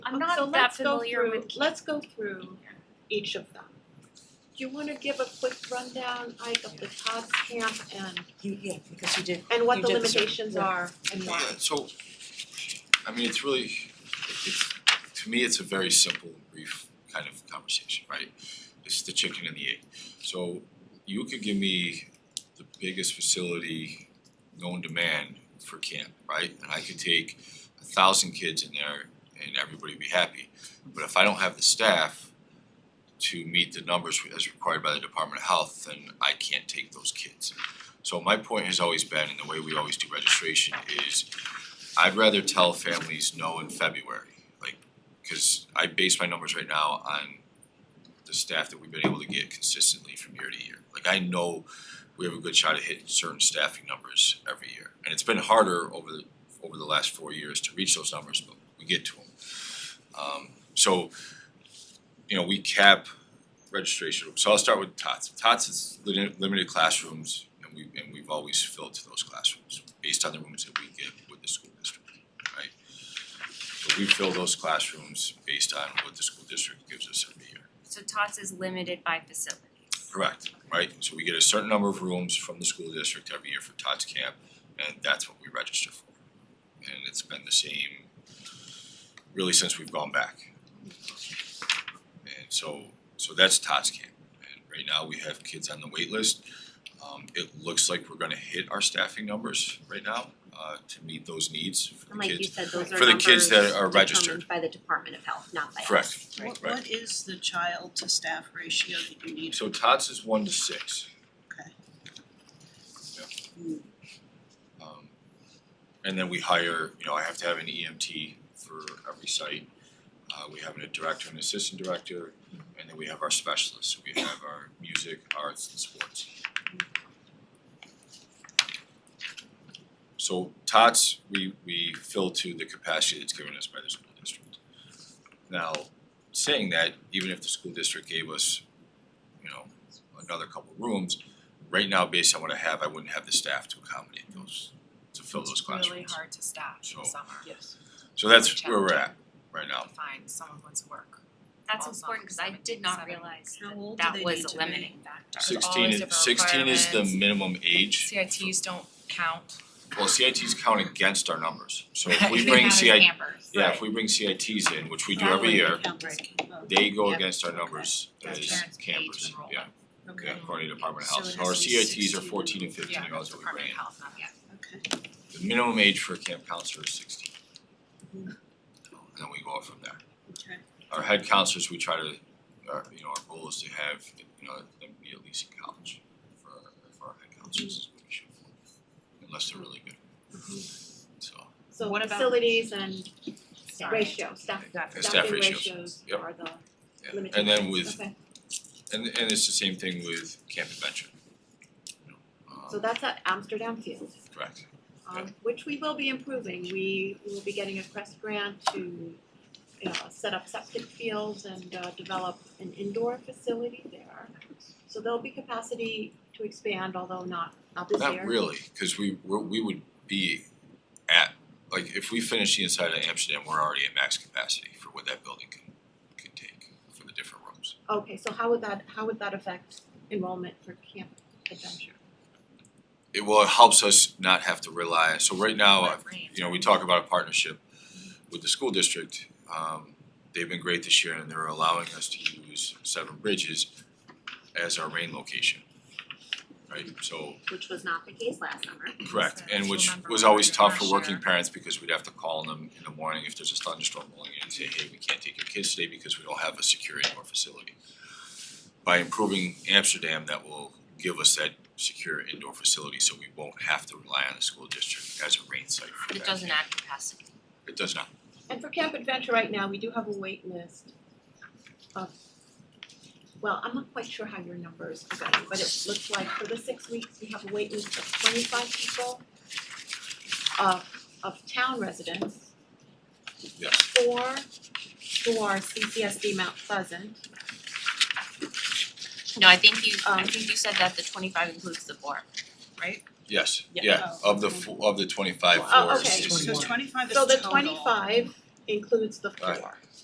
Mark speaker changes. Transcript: Speaker 1: I'm not
Speaker 2: So
Speaker 1: that
Speaker 2: let's go
Speaker 1: familiar
Speaker 2: through-
Speaker 1: with Keene.
Speaker 2: Let's go through each of them. Do you wanna give a quick rundown, Ike, of the Todd's camp and,
Speaker 3: You, yeah, because you did,
Speaker 2: and what
Speaker 3: You
Speaker 2: the
Speaker 3: did the sur-
Speaker 2: limitations
Speaker 3: yeah.
Speaker 2: are and why?
Speaker 4: Yeah, so, I mean, it's really, it's, to me, it's a very simple, brief kind of conversation, right? It's the chicken and the egg. So you could give me the biggest facility known to man for camp, right? And I could take a thousand kids in there and everybody would be happy. But if I don't have the staff to meet the numbers as required by the Department of Health, then I can't take those kids. So my point has always been, and the way we always do registration is, I'd rather tell families no in February, like, cause I base my numbers right now on the staff that we've been able to get consistently from year to year. Like I know we have a good shot at hitting certain staffing numbers every year. And it's been harder over the, over the last four years to reach those numbers, but we get to them. Um, so, you know, we cap registration. So I'll start with TOTS. TOTS is limited, limited classrooms, and we, and we've always filled to those classrooms based on the rooms that we get with the school district, right? So we fill those classrooms based on what the school district gives us every year.
Speaker 1: So TOTS is limited by facilities.
Speaker 4: Correct, right? So we get a certain number of rooms from the school district every year for Tots Camp, and that's what we register for. And it's been the same really since we've gone back. And so, so that's Tots Camp. And right now, we have kids on the wait list. Um, it looks like we're gonna hit our staffing numbers right now, uh, to meet those needs for the
Speaker 5: And
Speaker 4: kids.
Speaker 5: like you said, those are
Speaker 4: for the kids
Speaker 5: numbers
Speaker 4: that are registered.
Speaker 5: determined by the Department of Health, not by us.
Speaker 4: Correct.
Speaker 6: What
Speaker 4: Right.
Speaker 6: what is the child to staff ratio that you need?
Speaker 4: So Tots is one to six.
Speaker 6: Okay.
Speaker 4: Yeah. Um, and then we hire, you know, I have to have an EMT for every site. Uh, we have a director and assistant director, and then we have our specialists. We have our music, arts, and sports. So Tots, we, we fill to the capacity that's given us by the school district. Now, saying that, even if the school district gave us you know, another couple rooms. Right now, based on what I have, I wouldn't have the staff to accommodate those, to fill those classrooms.
Speaker 7: It's really hard to staff
Speaker 4: So-
Speaker 7: in summer,
Speaker 3: yes.
Speaker 4: So that's where we're at right
Speaker 7: to
Speaker 4: now.
Speaker 7: find someone who wants to work.
Speaker 1: That's
Speaker 7: All
Speaker 1: important, cause I
Speaker 7: seven-
Speaker 1: did not
Speaker 7: seven.
Speaker 1: realize
Speaker 6: How old do
Speaker 1: that
Speaker 6: they need
Speaker 1: was
Speaker 6: to
Speaker 1: a
Speaker 6: be?
Speaker 1: limiting factor.
Speaker 7: There's
Speaker 4: Sixteen
Speaker 7: always
Speaker 4: is,
Speaker 7: different
Speaker 4: sixteen is the
Speaker 7: requirements.
Speaker 4: minimum age.
Speaker 7: CITs don't count.
Speaker 4: Well, CITs count against our numbers, so if we bring CIT, yeah, if we bring CITs in, which we do every year,
Speaker 6: That would count as-
Speaker 4: they go
Speaker 6: Yep.
Speaker 4: against our numbers as
Speaker 7: Gotcha.
Speaker 4: campers,
Speaker 7: Parents
Speaker 4: yeah.
Speaker 7: pay to enroll.
Speaker 6: Okay.
Speaker 4: Yeah, according to Department of
Speaker 6: So
Speaker 4: Health,
Speaker 6: it
Speaker 4: So
Speaker 6: has
Speaker 4: our
Speaker 6: to be
Speaker 4: CITs are
Speaker 6: 16.
Speaker 4: fourteen and fifteen
Speaker 7: Yeah,
Speaker 4: year olds that we bring
Speaker 7: Department
Speaker 4: in.
Speaker 7: of Health, not yet.
Speaker 6: Okay,
Speaker 4: The minimum age for a camp counselor is sixteen. And then we go up from there.
Speaker 6: okay.
Speaker 4: our head counselors, we try to, our, you know, our goal is to have, you know, them be at least in college for our, for our head counselors is what we shoot for, unless they're really good. So,
Speaker 2: So
Speaker 3: What about-
Speaker 2: facilities and ratio, staff,
Speaker 4: and staff
Speaker 2: staffing
Speaker 4: ratios,
Speaker 2: ratios
Speaker 4: yep.
Speaker 2: are the
Speaker 4: yeah.
Speaker 2: limitations.
Speaker 4: and then with,
Speaker 2: Okay,
Speaker 4: and and it's the same thing with Camp Adventure. you know, um,
Speaker 2: so that's at Amsterdam Field.
Speaker 4: Correct,
Speaker 2: um which we will be improving. We will be getting a Crest grant to uh set up septic fields and uh develop an indoor facility there. So there'll be capacity to expand, although not not this year.
Speaker 4: not really, cause we, we're, we would be at, like, if we finish the inside of Amsterdam, we're already at max capacity for what that building can, can take for the different rooms.
Speaker 2: Okay, so how would that how would that affect enrollment for Camp Adventure?
Speaker 4: it well, it helps us not have to rely, so right now,
Speaker 7: But
Speaker 4: I've-
Speaker 7: range.
Speaker 4: you know, we talk about a partnership with the school district. Um they've been great this year and they're allowing us to use Seven Bridges as our rain location. Right, so
Speaker 5: Which was not the case last summer.
Speaker 4: correct, and which
Speaker 7: Remember
Speaker 4: was
Speaker 7: when
Speaker 4: always
Speaker 7: we
Speaker 4: tough
Speaker 7: were
Speaker 4: for
Speaker 7: last
Speaker 4: working
Speaker 7: year.
Speaker 4: parents because we'd have to call them in the morning if there's a thunderstorm rolling in and say, hey, we can't take your kids today because we don't have a secure indoor facility. By improving Amsterdam, that will give us that secure indoor facility, so we won't have to rely on the school district as a rain site for
Speaker 5: It
Speaker 4: that.
Speaker 5: doesn't add capacity.
Speaker 4: It does not.
Speaker 2: And for Camp Adventure right now, we do have a wait list of, well, I'm not quite sure how your numbers are going, but it looks like for the six weeks, we have a wait list of twenty-five people of of town residents.
Speaker 4: Yes.
Speaker 2: Four who are CCSD Mount Pleasant,
Speaker 5: No, I think you, I
Speaker 2: Um,
Speaker 5: think you said that the twenty-five includes the board.
Speaker 4: Yes,
Speaker 3: Yeah.
Speaker 4: yeah,
Speaker 6: Oh,
Speaker 4: of the
Speaker 6: okay.
Speaker 4: fo- of the twenty-five
Speaker 2: Oh,
Speaker 4: floors.
Speaker 2: okay.
Speaker 4: it's-
Speaker 6: So twenty-five is
Speaker 2: so the
Speaker 6: total.
Speaker 2: twenty-five includes the four.
Speaker 4: Right.